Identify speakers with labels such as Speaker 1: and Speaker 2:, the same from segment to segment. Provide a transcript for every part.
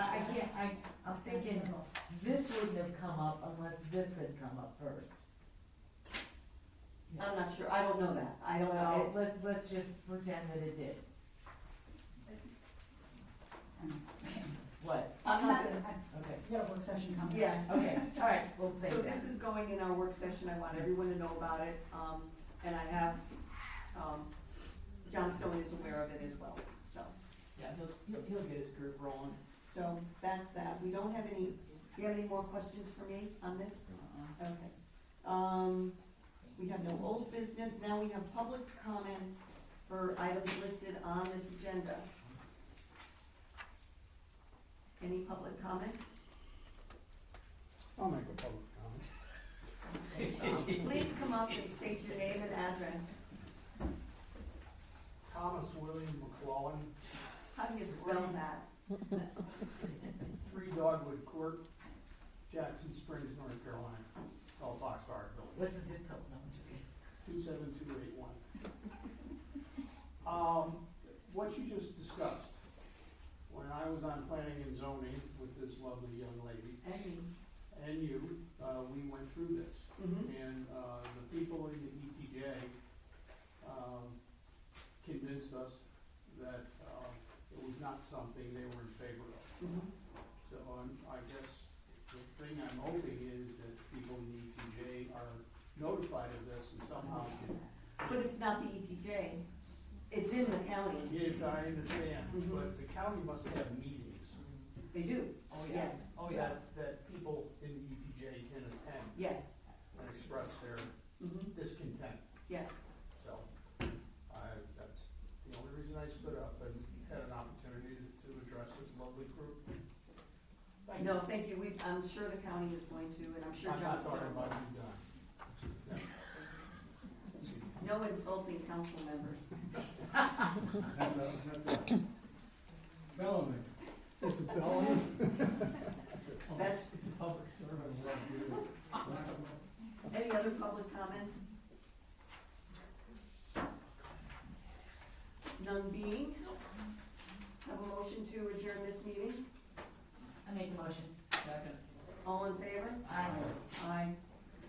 Speaker 1: I, I'm thinking, this wouldn't have come up unless this had come up first.
Speaker 2: I'm not sure, I don't know that, I don't
Speaker 1: Well,
Speaker 2: know.
Speaker 1: Uh, let, let's just pretend that it did. What?
Speaker 2: I'm not gonna,
Speaker 1: Okay,
Speaker 3: We got a work session coming.
Speaker 2: yeah.
Speaker 1: okay, all right, we'll say
Speaker 2: So
Speaker 1: that.
Speaker 2: this is going in our work session, I want everyone to know about it, um, and I have, um, John Stone is aware of it as well, so.
Speaker 1: Yeah, he'll, he'll, he'll get his group rolling.
Speaker 2: So that's that, we don't have any, do you have any more questions for me on this?
Speaker 1: Uh-uh.
Speaker 2: Okay. Um, we have no old business, now we have public comment for items listed on this agenda. Any public comment?
Speaker 4: I'll make a public comment.
Speaker 2: Please come up and state your name and address.
Speaker 4: Thomas William McClellan,
Speaker 2: How do you spell that?
Speaker 4: Three Dogwood Court, Jackson Springs, North Carolina, called Foxfire Building,
Speaker 1: What's the zip code? No, I'm just kidding.
Speaker 4: two seven two eight one. Um, what you just discussed, when I was on planning and zoning with this lovely young lady
Speaker 2: Any?
Speaker 4: and you, uh, we went through this.
Speaker 2: Mhm.
Speaker 4: And, uh, the people in the ETJ, um, convinced us that, um, it was not something they were in favor of.
Speaker 2: Mhm.
Speaker 4: So I'm, I guess the thing I'm hoping is that people in ETJ are notified of this and somehow can.
Speaker 2: But it's not the ETJ, it's in the county,
Speaker 4: Yes, I understand,
Speaker 2: Mhm.
Speaker 1: Mm-hmm.
Speaker 4: but the county must have meetings
Speaker 2: they do,
Speaker 1: Oh, yeah,
Speaker 2: Yes.
Speaker 1: oh, yeah.
Speaker 4: that, that people in ETJ can attend
Speaker 2: yes,
Speaker 4: and express their
Speaker 2: Mhm.
Speaker 4: discontent.
Speaker 2: yes.
Speaker 4: So I, that's the only reason I stood up and had an opportunity to address this lovely group. Thank you.
Speaker 2: No, thank you, we, I'm sure the county is going to, and I'm sure
Speaker 4: I'm
Speaker 2: John
Speaker 4: not talking
Speaker 2: Stone.
Speaker 4: about you, Don. No. Excuse me.
Speaker 2: No insulting council members.
Speaker 5: That's a, that's a felony. It's a felony.
Speaker 2: That's,
Speaker 1: It's a public service.
Speaker 2: any other public comments? None being? Have a motion to adjourn this meeting?
Speaker 1: I make a motion. Second.
Speaker 2: All in favor?
Speaker 1: Aye.
Speaker 2: Aye.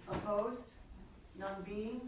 Speaker 2: Opposed? None being?